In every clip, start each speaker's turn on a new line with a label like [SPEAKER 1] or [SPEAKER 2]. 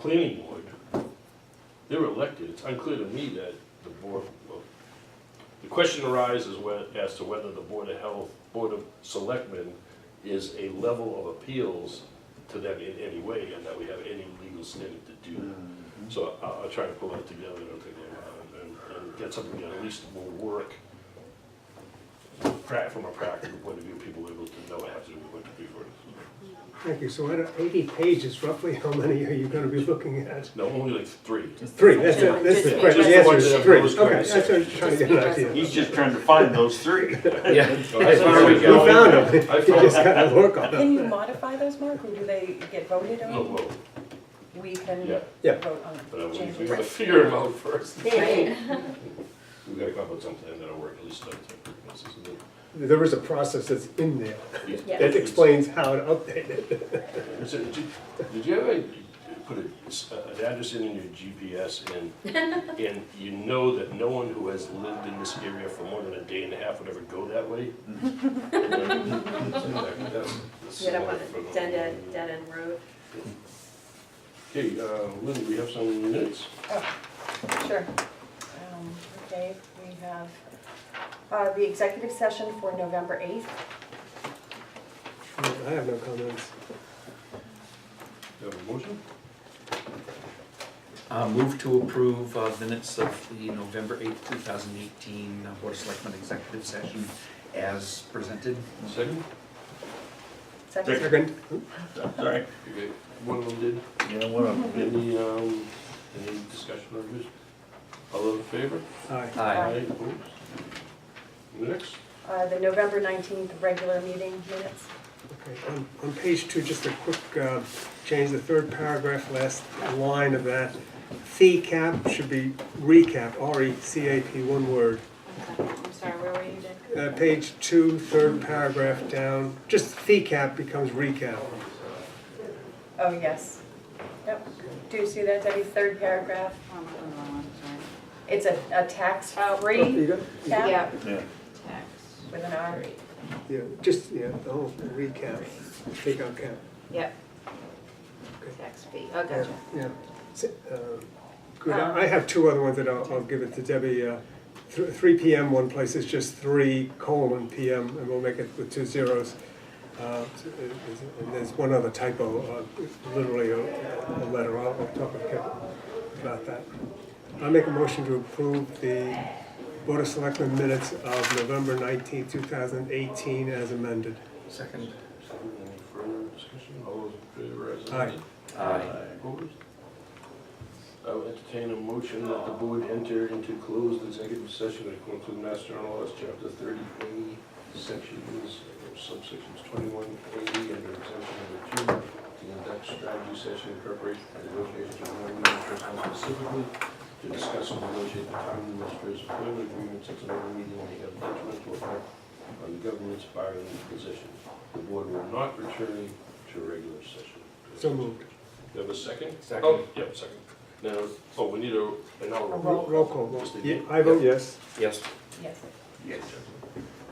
[SPEAKER 1] planning board, they're elected, it's unclear to me that the board, well, the question arises whe- as to whether the Board of Health, Board of Selectmen is a level of appeals to them in any way, and that we have any legal standing to do that. So I'll, I'll try to pull that together, it'll take a while, and, and get something that at least will work pra- from a practical point of view, people able to know what have to do with what to do for it.
[SPEAKER 2] Thank you. So out of 80 pages, roughly how many are you going to be looking at?
[SPEAKER 1] No, only like three.
[SPEAKER 2] Three, that's it, that's
[SPEAKER 3] Just
[SPEAKER 2] the
[SPEAKER 3] the
[SPEAKER 2] question,
[SPEAKER 3] ones
[SPEAKER 2] the answer
[SPEAKER 1] that
[SPEAKER 2] is
[SPEAKER 1] have
[SPEAKER 2] three.
[SPEAKER 1] those
[SPEAKER 2] Okay,
[SPEAKER 1] kinds.
[SPEAKER 2] that's what I'm trying to get an idea.
[SPEAKER 4] He's just trying to find those three.
[SPEAKER 5] Yeah.
[SPEAKER 2] We found them, you
[SPEAKER 1] I found-
[SPEAKER 2] just got to work on them.
[SPEAKER 3] Can you modify those, Mark, or do they get voted
[SPEAKER 1] Oh,
[SPEAKER 3] on?
[SPEAKER 1] well,
[SPEAKER 3] We can
[SPEAKER 1] Yeah.
[SPEAKER 2] Yeah.
[SPEAKER 3] vote
[SPEAKER 1] but I
[SPEAKER 3] on
[SPEAKER 1] would, we gotta
[SPEAKER 3] changes.
[SPEAKER 1] figure them out first. We
[SPEAKER 3] Right.
[SPEAKER 1] gotta come up with something that'll work, at least start to.
[SPEAKER 2] There is a process that's in there
[SPEAKER 3] Yeah.
[SPEAKER 2] that explains how to update it.
[SPEAKER 1] So, Did you- did you ever put a- an address in in your GPS and, and you know that no one who has lived in this area for more than a day and a half would ever go that way?
[SPEAKER 6] You don't want a dead end, dead end road.
[SPEAKER 1] Okay, uh, Lynn, we have some minutes?
[SPEAKER 3] Sure. Um, Okay, we have uh, the executive session for November 8th.
[SPEAKER 2] I have no comments.
[SPEAKER 1] Do you have a motion?
[SPEAKER 5] Uh, move to approve uh, minutes of the November eighth, two thousand eighteen uh, Board of Selectmen Executive Session as presented.
[SPEAKER 1] Second?
[SPEAKER 3] Second.
[SPEAKER 2] Second,
[SPEAKER 4] Sorry.
[SPEAKER 1] Okay, One of them did.
[SPEAKER 4] You know what? I'm-
[SPEAKER 1] Any, um, any discussion on this? All those in favor?
[SPEAKER 2] aye.
[SPEAKER 3] Aye.
[SPEAKER 1] Opposed? Next?
[SPEAKER 3] Uh, The November 19th regular meeting minutes.
[SPEAKER 2] Okay, On, on page two, just a quick uh, change, the third paragraph, last line of that. Fee cap should be recap, E R-E-C-A-P, one word.
[SPEAKER 6] I'm sorry, where were you, Dick?
[SPEAKER 2] Uh, Page two, third paragraph down, just fee cap becomes recap.
[SPEAKER 3] Oh, yes. Yep. Do you see that, Debbie? Third paragraph.
[SPEAKER 6] Oh, I'm on the wrong one, sorry.
[SPEAKER 3] It's a a tax-free
[SPEAKER 2] go.
[SPEAKER 3] cap
[SPEAKER 6] Yeah,
[SPEAKER 4] Yeah.
[SPEAKER 6] tax.
[SPEAKER 3] with an R.
[SPEAKER 2] Yeah, just, yeah, the whole recap, take out cap,
[SPEAKER 6] Yep. Tax fee, oh, gotcha.
[SPEAKER 2] Um, yeah. S- uh, Good, I I have two other ones that I'll, I'll give it to Debbie. Uh, thr- Three PM, one place is just three colon PM, and we'll make it with two zeros. Uh, And there's one other typo, uh, literally a a letter, I'll I'll talk with Kevin about that. I make a motion to approve the Board of Selectmen minutes of November nineteenth, two thousand eighteen as amended.
[SPEAKER 5] Second.
[SPEAKER 1] Any further discussion? All those in favor as amended?
[SPEAKER 5] Aye.
[SPEAKER 1] Opposed? I will entertain a motion that the board enter into closed executive session according to Mass General Laws, Chapter 30A, Sections, or subsections 21A, under exemption number 2, to conduct strategy session in preparation for negotiations with non-union personnel specifically, to discuss and negotiate the town administrator's employment agreements at another meeting may have detrimental effect on the government's bargaining position. The board will not return to regular session.
[SPEAKER 2] So moved.
[SPEAKER 1] Do you have a second?
[SPEAKER 5] Second.
[SPEAKER 1] Oh, Yep, second. Now, oh, we need a, an hour roll.
[SPEAKER 2] Roll call, roll.
[SPEAKER 1] Just a-
[SPEAKER 2] Yeah, I vote yes.
[SPEAKER 5] Yes.
[SPEAKER 3] Yes.
[SPEAKER 1] Yes.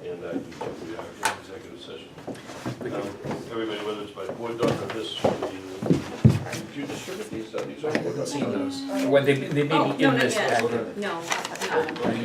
[SPEAKER 1] And I do think we are in executive session.
[SPEAKER 5] We
[SPEAKER 1] Um,
[SPEAKER 5] can-
[SPEAKER 1] Everybody, whether it's by board doc or this, the- did you uh, distribute these, are these all board docs?
[SPEAKER 5] Well, they, they may be in this packet.
[SPEAKER 6] No, I have not.